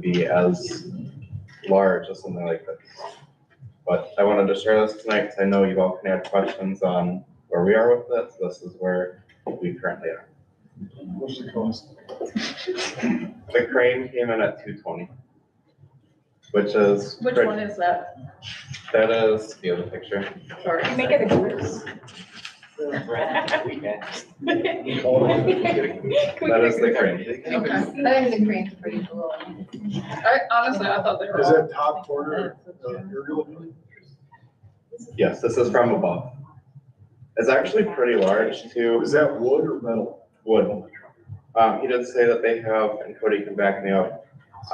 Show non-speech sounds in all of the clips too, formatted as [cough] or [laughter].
be as large as something like this. But I wanted to share this tonight because I know you've all can add questions on where we are with this. This is where we currently are. What's the cost? The crane came in at two twenty. Which is. Which pretty- one is that? That is the other picture. Sorry. Make it a goose. That is the crane. Okay. I think the crane's pretty cool. I honestly, I thought they were. Is all- that top corner, uh, aerial view? Yes, this is from above. It's actually pretty large too. Is that wood or metal? Wood. Um, he did say that they have, and Cody can back me up,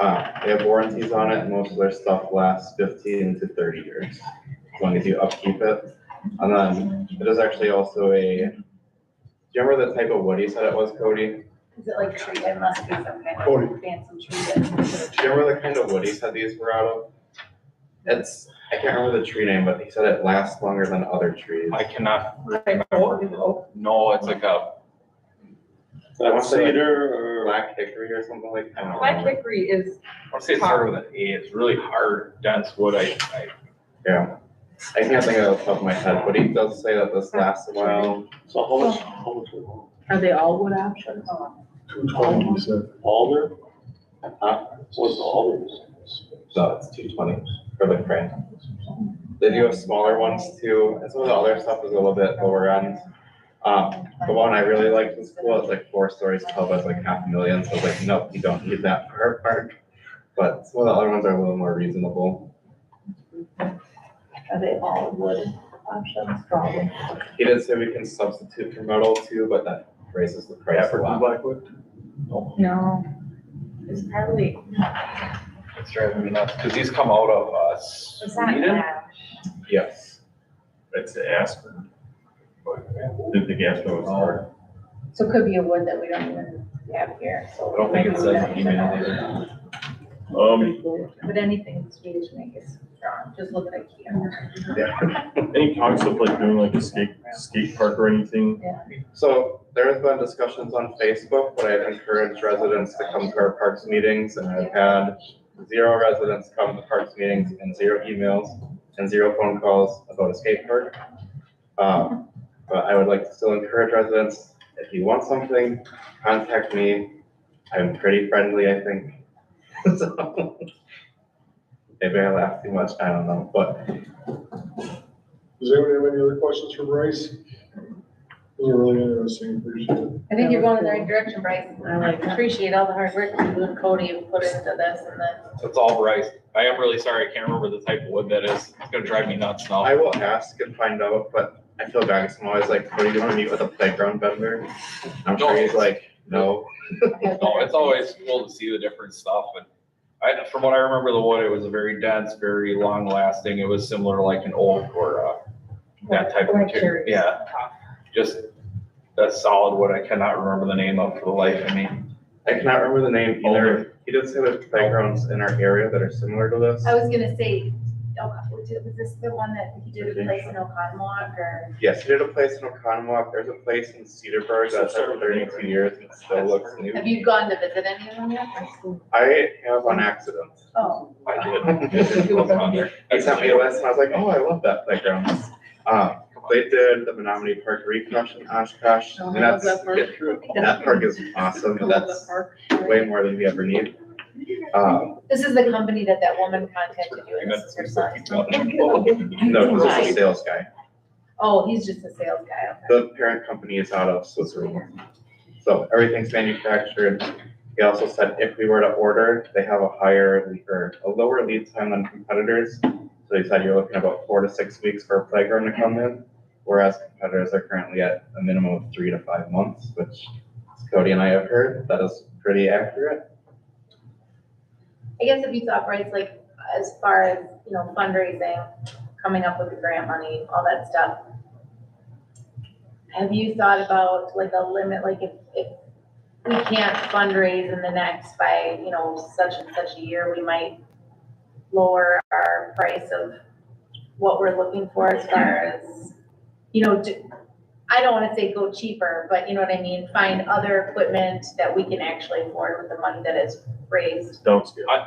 uh, they have warranties on it, and most of their stuff lasts fifteen to thirty years, as long as you upkeep it. And then, it is actually also a, do you remember the type of wood he said it was, Cody? Is it like tree, it must be some kind Cody. of fancy tree. Do you remember the kind of wood he said these were out of? It's, I can't remember the tree name, but he said it lasts longer than other trees. I cannot Like oak, remember. oak. No, it's like a, I want to say like Cedar black hickory or something like, I don't Black know. hickory is, I want to say it started with an A. It's really hard, dense wood. I, I, Yeah, I can't think of the top of my head, but he does say that this lasts a while. So how much, how much was it? Are they all wood options? oh, Two twenty, you said. Alder? Huh? What's the alder? No, it's two twenty for the crane. They do have smaller ones too, and some of the other stuff is a little bit lower end. Um, the one I really liked was cool, it's like four stories tall, but it's like half a million, so it's like, nope, you don't need that for our park. But some of the other ones are a little more reasonable. are they all wood options? Probably. He did say we can substitute for metal too, but that raises the price a lot. Blackwood? No. It's probably, it's driving me nuts because these come out of uh, it's not Sweden. that. Yes, That's the aspen. Did the gas go as hard? So it could be a wood that we don't even have here, so. I don't think it says an email Um, But anything Swedish make is strong, just look at IKEA. any talks of like doing like a skate, skate park or anything? So there has been discussions on Facebook, but I've encouraged residents to come to our parks meetings and I've had zero residents come to parks meetings and zero emails and zero phone calls about a skate park. Um, But I would like to still encourage residents, if you want something, contact me. I'm pretty friendly, I think. [laughs] So, Maybe I laugh too much, I don't know, but Does anyone have any other questions for Bryce? Those are really interesting, appreciate it. I think you're going in the right direction, Bryce. I like that. Appreciate all the hard work you and Cody have put into this and then. It's all rice. I am really sorry. I can't remember the type of wood that is. It's gonna drive me nuts now. I will ask and find out, but I feel bad because I'm always like, what do you want to meet with a playground vendor? I'm sure he's like, no. No, it's always cool to see the different stuff and I, from what I remember the wood, it was a very dense, very long lasting. It was similar to like an oak or uh, that type of Like cherries. material. Yeah, just that solid wood. I cannot remember the name of for the life of me. I cannot remember the name either. He did say there's playgrounds in our area that are similar to this. I was gonna say, oh, was it- was this the one that he did a place in Oconomowoc or? Yes, he did a place in Oconomowoc. There's a place in Cedarburg that's had for thirty-two years and it still looks new. Have you gone to visit any of them yet? I have on accident. Oh, I did. It was on there. He sent me a list and I was like, oh, I love that playground. Um, they did the Menominee Park reconstruction in Oshkosh Oh, I and love that's, that park. that park is awesome. and That's way more than we ever need. Um, This is the company that that woman contacted you and this is her son. [laughs] no, this is a sales guy. [laughs] Oh, he's just a sales guy. okay. The parent company is out of Switzerland. So everything's manufactured. He also said if we were to order, they have a higher lead- or a lower lead time than competitors. So he said you're looking about four to six weeks for a playground to come in, whereas competitors are currently at a minimum of three to five months, which Cody and I have heard, that is pretty accurate. I guess if you thought, Bryce, like, as far as, you know, fundraising, coming up with the grant money, all that stuff. Have you thought about like a limit, like if, if we can't fundraise in the next by, you know, such and such a year, we might lower our price of what we're looking for as far as, you know, do- I don't wanna say go cheaper, but you know what I mean? Find other equipment that we can actually afford with the money that is raised. Downscale.